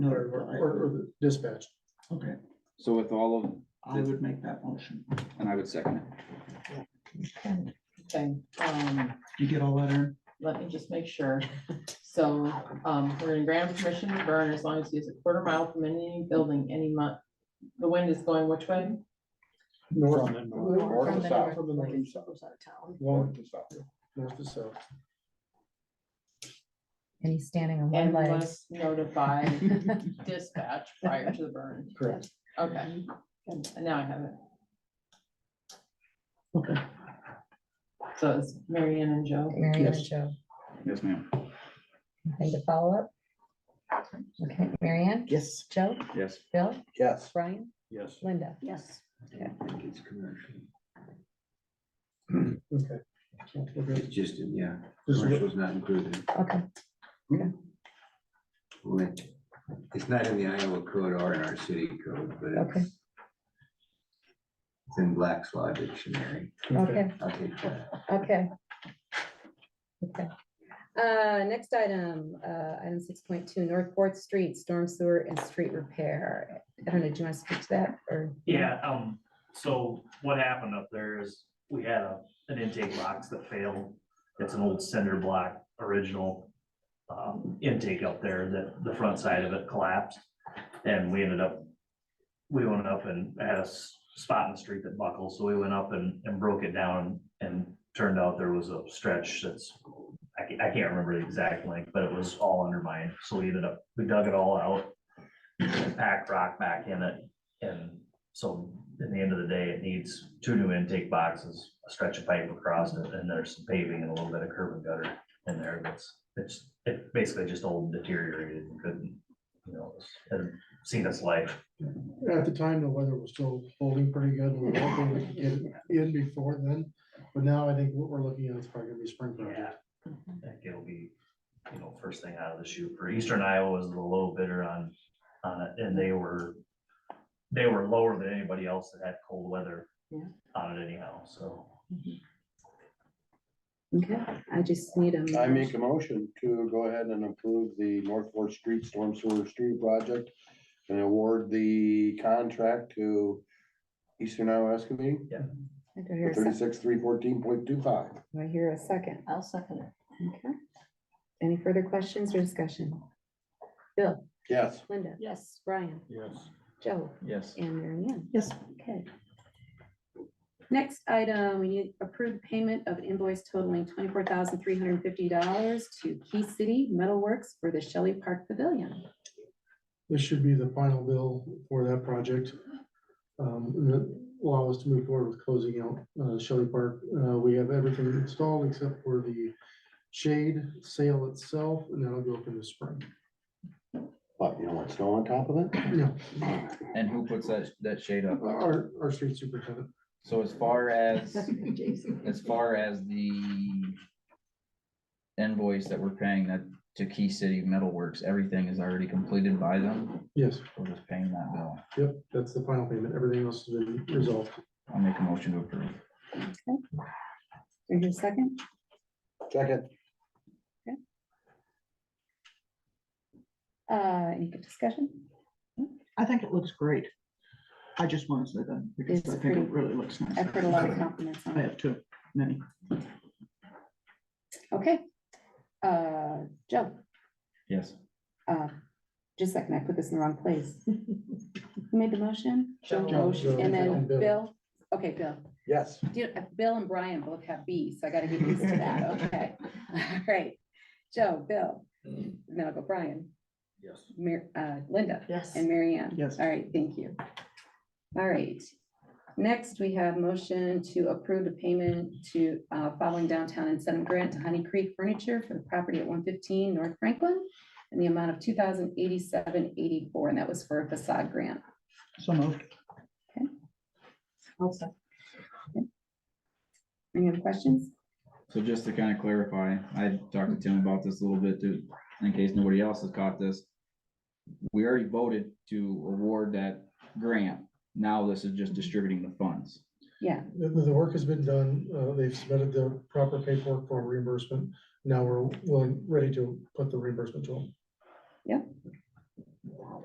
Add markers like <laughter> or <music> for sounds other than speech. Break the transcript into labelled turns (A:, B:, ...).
A: Or,
B: Or, or
A: or-
B: the dispatch.
A: okay,
C: So with all of,
A: I would make that motion.
C: and I would second it.
D: Okay, um,
A: You get all that, Aaron?
D: let me just make sure. So, um, we're gonna grant permission to burn as long as it's a quarter mile from any building any month. The wind is going which way?
B: North.
A: From the north.
B: North
E: From
B: to
E: the
B: south.
E: north,
B: From the
E: like
B: north,
E: it goes out of town.
B: north to south, north to south.
E: And he's standing on
D: And must notify dispatch prior to the burn.
B: Correct.
D: Okay, and now I have it.
A: Okay.
D: So it's Marianne and Joe.
E: Mary Ann and
B: Yes.
E: Joe,
C: Yes, ma'am.
E: anything to follow up? Okay, Mary Ann,
A: Yes.
E: Joe,
C: Yes.
E: Bill,
B: Yes.
E: Brian,
B: Yes.
E: Linda.
F: Yes.
B: Okay. We're good.
G: It's just, yeah,
B: Just re-
G: commercial's not included.
E: Okay,
G: Right. It's not in the Iowa code or in our city code, but
E: okay,
G: it's in Black's Law Dictionary.
B: okay.
E: okay,
G: I'll take that.
E: okay. Okay. Uh, next item, uh, item six point two, North Fourth Street, storm sewer and street repair. I don't know, do you want to speak to that or?
H: Yeah, um, so what happened up there is we had a, an intake box that failed. It's an old cinder block original um, intake up there that the front side of it collapsed. And we ended up, we went up and had a s- spot in the street that buckled, so we went up and, and broke it down. And turned out there was a stretch that's, I can't, I can't remember the exact length, but it was all undermined. So we ended up, we dug it all out. Packed rock back in it and so in the end of the day, it needs two new intake boxes, a stretch of pipe across it, and there's some paving and a little bit of curb and gutter in there. That's, it's, it basically just all deteriorated and couldn't, you know, it had seen its life.
B: At the time, the weather was still holding pretty good. We were hoping we could get it in before then, but now I think what we're looking at is probably gonna be spring project.
H: I think it'll be, you know, first thing out of the chute for Eastern Iowa was the low bidder on, on it, and they were, they were lower than anybody else that had cold weather
D: Yeah.
H: on it anyhow, so.
E: Okay, I just need a.
I: I make a motion to go ahead and approve the North Fourth Street Storm Sewer Street Project and award the contract to Eastern Iowa Excavating
E: I do hear
I: for
E: a sec-
I: thirty-six, three fourteen point two five.
E: do I hear a second.
F: I'll second it.
E: Okay. Any further questions or discussion? Bill,
I: Yes.
E: Linda,
F: Yes.
E: Brian,
B: Yes.
E: Joe,
C: Yes.
E: and Mary Ann.
F: Yes.
E: Okay. Next item, we need approved payment of invoice totaling twenty-four thousand three hundred and fifty dollars to Key City Metalworks for the Shelley Park Pavilion.
B: This should be the final bill for that project. Um, and that allow us to move forward with closing out uh, Shelley Park. Uh, we have everything installed except for the shade sail itself, and that'll go up in the spring.
I: But you know what's still on top of it?
B: Yeah,
C: And who puts that, that shade up?
B: our, our street superintendent.
C: So as far as,
F: Jason.
C: as far as the invoice that we're paying that to Key City Metalworks, everything is already completed by them.
B: Yes,
C: We're just paying that bill.
B: yep, that's the final payment. Everything else has been resolved.
C: I'll make a motion to approve.
E: Is there a second?
I: Second.
E: Uh, any good discussion?
A: I think it looks great. I just want to say that because
E: It's
A: I think
E: pretty.
A: it really looks nice.
E: I've heard a lot of compliments on
A: I
E: it.
A: have too, many.
E: Okay. Uh, Joe,
C: Yes.
E: uh, just a second, I put this in the wrong place. <laughs> Who made the motion?
D: Joe.
E: Motion, And then
B: Bill.
E: Bill, okay, Bill.
I: Yes.
E: Do- uh, Bill and Brian both have B, so I gotta get used to that, okay. All right, Joe, Bill, and then I'll go Brian,
G: Yes.
E: Mar- uh, Linda,
F: Yes.
E: and Mary Ann.
A: Yes.
E: All right, thank you. All right, next we have motion to approve the payment to uh, following downtown incentive grant to Honey Creek Furniture for the property at one fifteen North Franklin in the amount of two thousand eighty-seven eighty-four, and that was for a facade grant.
A: So moved.
E: Any other questions?
C: So just to kind of clarify, I talked to Tim about this a little bit too, in case nobody else has caught this. We already voted to award that grant. Now this is just distributing the funds.
E: Yeah,
B: The, the the work has been done. Uh, they've submitted the proper paperwork for reimbursement. Now we're willing, ready to put the reimbursement to them.